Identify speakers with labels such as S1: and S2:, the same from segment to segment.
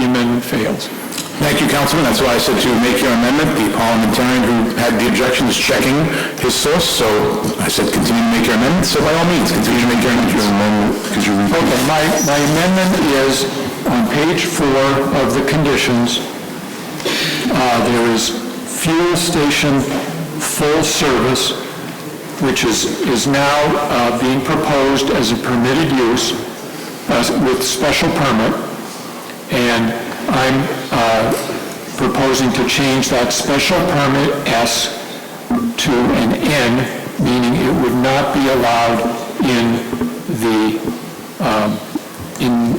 S1: amendment fails.
S2: Thank you, Councilman. That's why I said to make your amendment. The parliamentarian who had the objection is checking his source, so I said continue to make your amendment. So by all means, continue to make your amendment. Because you
S1: Okay, my, my amendment is on page four of the conditions, uh, there is fuel station full service, which is, is now uh, being proposed as a permitted use uh, with special permit, and I'm uh, proposing to change that special permit S to an N, meaning it would not be allowed in the um, in,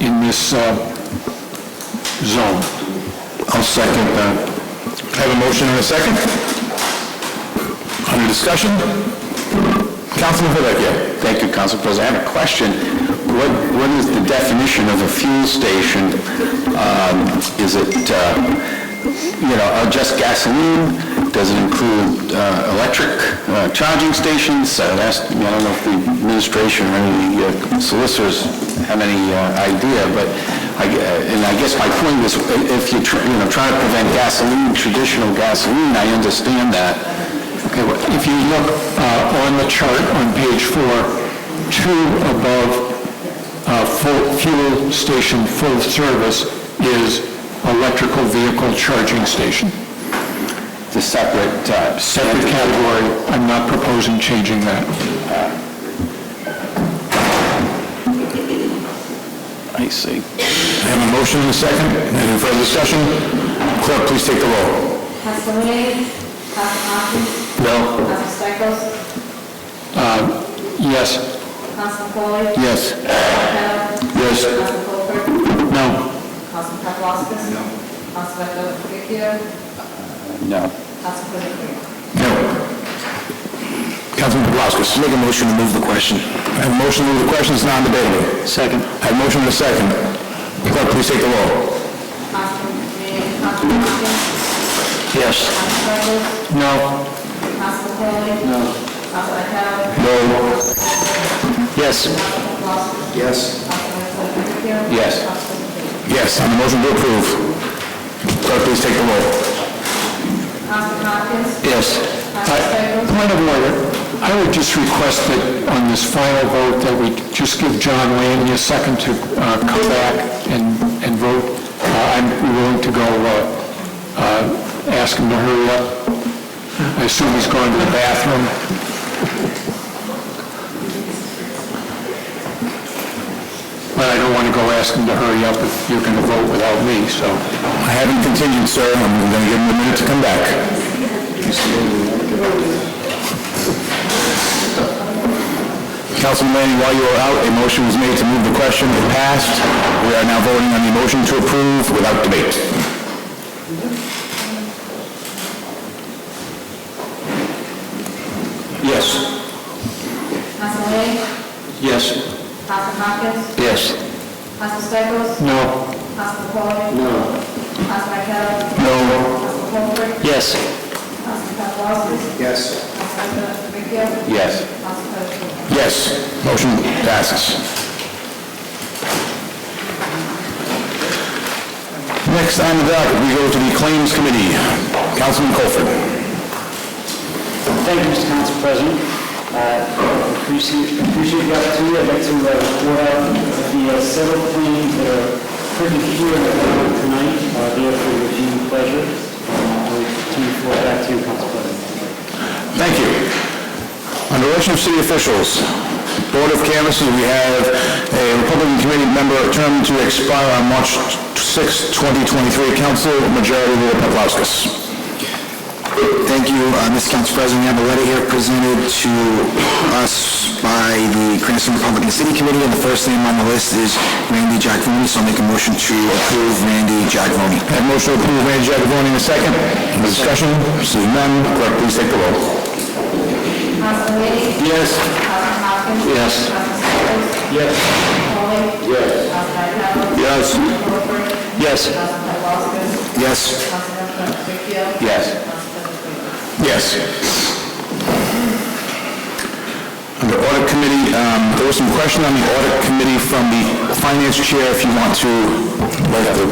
S1: in this uh, zone.
S2: I'll second that. I have a motion and a second. Under discussion? Councilman Vivekio. Thank you, Council President. I have a question. What, what is the definition of a fuel station? Um, Is it, uh, you know, uh, just gasoline? Does it include uh, electric uh, charging stations? Uh, that's- I don't know if the administration or any uh, solicitors have any uh, idea, but I gue- and I guess my point is, i- if you're, tr- you know, trying to prevent gasoline, traditional gasoline, I understand that.
S1: Okay, well, if you look uh, on the chart on page four, two above uh, full- fuel station full service is electrical vehicle charging station.
S2: The separate... uh,
S1: Separate category, I'm not proposing changing that.
S2: I see. I have a motion and a second. Any further discussion? Clerk, please take the roll.
S3: Council Lee, Council Hopkins,
S2: No.
S3: Council Stichels,
S1: Yes?
S3: Council Foley,
S2: Yes.
S3: Council Pell,
S2: Yes.
S3: Council Colfer,
S1: No?
S3: Council Paplaskas, Council Vecchio,
S2: No.
S3: Council Pellegrini.
S2: No. Councilman Paplaskas. Make a motion to move the question. I have a motion to move the question, it's non-debatable. Second. I have a motion and a second. Clerk, please take the roll.
S3: Council Lee, Council Hopkins,
S2: Yes.
S3: Council Stichels,
S1: No.
S3: Council Foley, Council Vecchio,
S2: No. Yes.
S3: Council Paplaskas,
S2: Yes.
S3: Council Vecchio.
S2: Yes.
S3: Council Pellegrini.
S2: Yes, on the motion to approve. Clerk, please take the roll.
S3: Council Hopkins,
S2: Yes.
S3: Council Stichels,
S1: Uh, Point of order, I would just request that on this final vote, that we just give John Landy a second to uh, come back and, and vote. Uh, I'm willing to go, uh, uh, ask him to hurry up. I assume he's going to the bathroom. But I don't want to go ask him to hurry up if you're going to vote without me, so.
S2: I haven't continued, sir. I'm going to give him a minute to come back. Councilman Lanning, while you were out, a motion was made to move the question. It passed. We are now voting on the motion to approve without debate. Yes.
S3: Council Lee,
S2: Yes.
S3: Council Hopkins,
S2: Yes.
S3: Council Stichels,
S1: No.
S3: Council Foley. No. Council Vecchio,
S2: No.
S3: Council Colfer,
S2: Yes.
S3: Council Paplaskas,
S2: Yes.
S3: Council Vecchio,
S2: Yes.
S3: Council Pellegrini.
S2: Yes, motion passes. Next on the docket, we go to the Claims Committee. Councilman Colford.
S4: Thank you, Mr. Council President. Uh, Appreciate appreciate the opportunity. I'd like to uh, report out the uh, several claims that are pretty here in the court tonight, uh, there for your viewing pleasure. Uh, I'll turn the floor back to you, Council President.
S2: Thank you. Under election of city officials, Board of Canvassers, we have a Republican Committee member term to expire on March 6, 2023. Council Majority Leader Paplaskas.
S5: Thank you, uh, Mr. Council President. We have a letter here presented to us by the Cranston Republican City Committee, and the first name on the list is Randy Giacavone, so I'll make a motion to approve Randy Giacavone.
S2: Have motion to approve Randy Jackavoni in a second. Any discussion? Seeing none, clerk, please take the roll.
S3: Council Lee,
S2: Yes.
S3: Council Hopkins.
S2: Yes.
S3: Council Stichels.
S2: Yes.
S3: Foley.
S2: Yes.
S3: Council Vecchio.
S2: Yes.
S3: Colfer.
S2: Yes.
S3: Council Paplaskas.
S2: Yes.
S3: Council Vecchio.
S2: Yes.
S3: Council Pellegrini.
S2: Yes. Under audit committee, um, there was some question on the audit committee from the finance chair, if you want to, like, the